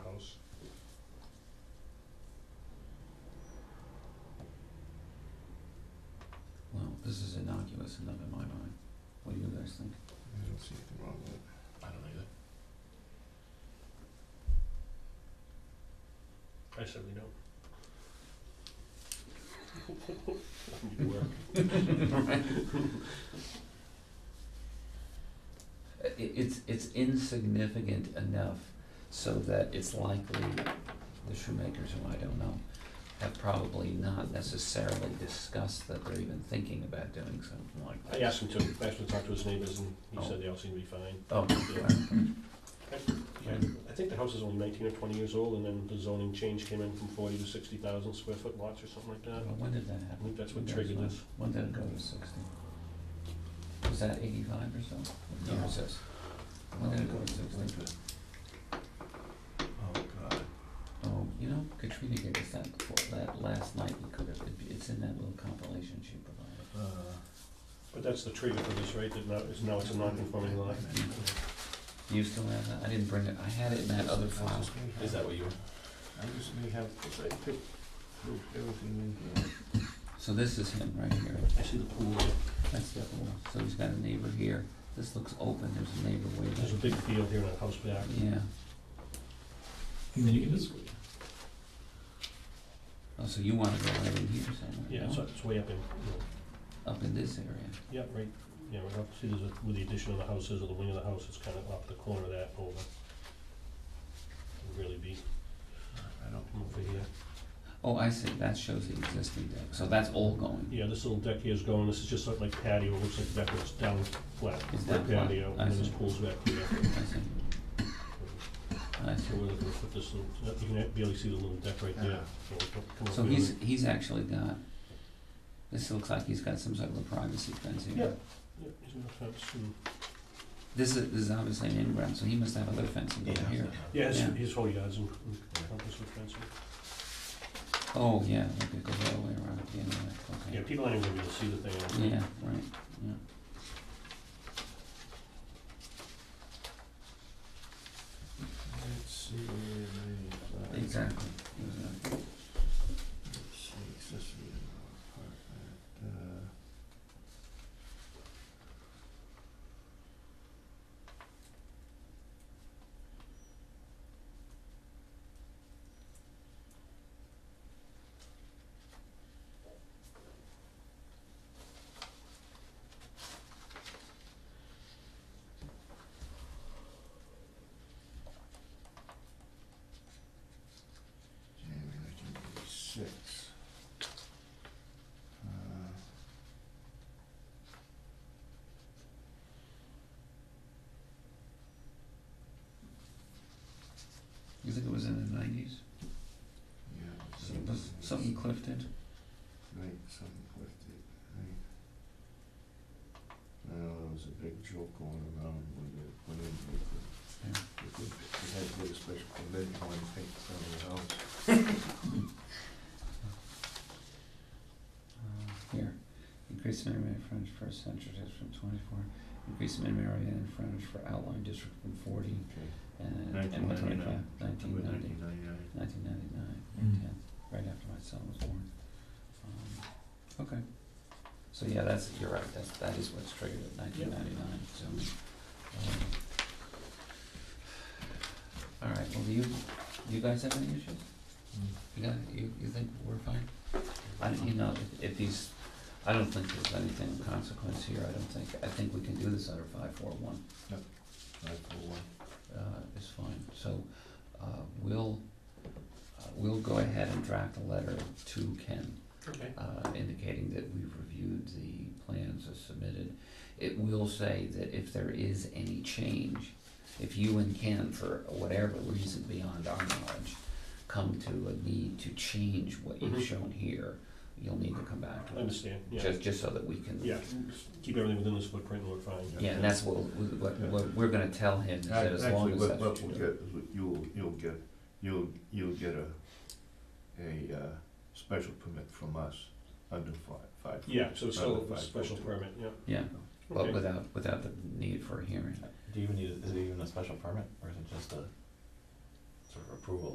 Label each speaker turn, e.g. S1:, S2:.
S1: that's enough in my mind. What do you guys think?
S2: I don't see anything wrong with it.
S3: I don't either. I certainly don't. Work.
S1: I- i- it's, it's insignificant enough so that it's likely the shoemakers, who I don't know, have probably not necessarily discussed that they're even thinking about doing something like
S3: I
S1: that.
S3: asked him to, I asked him to talk to his neighbors and he
S1: Oh.
S3: said they all seem to be fine.
S1: Oh,
S3: Yeah.
S1: Yeah.
S3: I think the house is only nineteen or twenty years old and then the zoning change came in from forty to sixty thousand square foot lots or something like that.
S1: well, when did that
S3: I
S1: happen?
S3: think Uh, that's what triggered this.
S1: When did it go to sixty? Was that eighty-five or so? What year
S2: No.
S1: was this? When did it go to sixty?
S2: Oh, God.
S1: Oh, you know, Katrina gave us that before, that last night, we could have, it's in that little compilation she provided.
S2: Uh,
S3: But that's the trigger for this, right, that now, it's, now it's a non-conforming lot.
S1: Do you still have that? I didn't bring it, I had it in that other
S2: I
S1: file.
S2: just may have-
S3: what you?
S2: I just may have, I picked through everything in here.
S1: So this is him right here.
S3: I see the pool,
S1: That's the other one. So he's got a neighbor here. This looks open. There's a neighbor way
S3: there's a
S1: back.
S3: big field here and a house back.
S1: Yeah.
S3: Then you can just-
S1: Oh, so you wanna go right in here somewhere?
S3: Yeah,
S1: no?
S3: it's, it's way up in, you know,
S1: Up in this area.
S3: Yeah, right, yeah, right up, see, there's a, with the addition of the houses or the wing of the house, it's kind of up the corner of that over. Would Really be
S2: I don't.
S3: over here.
S1: Oh, I see. That shows the existing deck. So that's all going.
S3: Yeah, this little deck here is going, this is just sort of like patio, it looks like deck that's down flat,
S1: It's
S3: flat
S1: down flat,
S3: patio,
S1: I
S3: and then this
S1: see.
S3: pool's back here.
S1: I see. I
S3: So
S1: see.
S3: we're gonna put this little, you can barely see the little deck right there,
S2: Yeah.
S3: so we'll come- come up
S1: Ah. So
S3: here
S1: he's,
S3: and-
S1: he's actually got, this looks like he's got some sort of a privacy fence here.
S3: Yeah. Yeah, he's gonna fence and-
S1: This is, this is obviously an in-ground, so he must have other fencing over here.
S3: Yeah, his,
S1: Yeah.
S3: his whole yard's in, in compass with fencing.
S1: Oh, yeah, okay, it goes all the way around, yeah, okay.
S3: Yeah, people aren't even gonna be able to see the thing. I don't think.
S1: Yeah, right, yeah.
S2: Let's see, ninety-five.
S1: Exactly.
S2: Let's see, accessory apartment, uh. January nineteen eighty-six.
S1: You think it was in the nineties?
S2: Yeah.
S1: Something Cliff did?
S2: Right, something Cliff did, right. Well, there was a big joke going around when it went in with the,
S1: Yeah.
S2: with the, they had to get a special permit to want to paint the front of the house.
S1: Uh, Here, increase the minimum area frontage per central district from twenty-four, increase the minimum area and frontage for outlying district from forty
S2: Okay.
S1: and, and one twenty-five, nineteen ninety,
S2: Nineteen ninety-nine.
S1: nineteen ninety-nine,
S2: Mm.
S1: yeah, right after my son was born. Um, Okay, so yeah, that's, you're right, that's, that is what's triggered at nineteen ninety-nine, so. um, All right, well, do you, do you guys have any issues? You got, you, you think we're fine? I, don't- you know, if- if these, I don't think there's anything of consequence here, I don't think, I think we can do this under five four one,
S2: Five four one.
S1: uh, is fine, so, uh, we'll, uh, we'll go ahead and draft a letter to Ken,
S3: Okay.
S1: uh, indicating that we've reviewed the plans as submitted. It will say that if there is any change, if you and Ken, for whatever reason beyond our knowledge, come to a need to change what you've
S2: Mm-hmm.
S3: Mhm.
S1: shown here, you'll need to come back to
S3: I
S1: us.
S3: understand, yeah,
S1: Just, just so that we can.
S3: yeah, keep everything within this footprint and we're fine.
S1: Yeah, and that's what, we- what,
S2: Yeah.
S1: what we're gonna tell him, is that as long
S2: Actually,
S1: as
S2: what,
S1: that's.
S2: what we'll get is what you'll, you'll get, you'll, you'll get a, a, uh, special permit from us under five, five.
S3: Yeah, so it's
S2: under
S3: still a
S2: five
S3: special
S2: foot.
S3: permit, yeah.
S1: Yeah, but
S3: Okay.
S1: without, without the need for a hearing.
S4: Do you even need, is it even a special permit, or is it just a sort of approval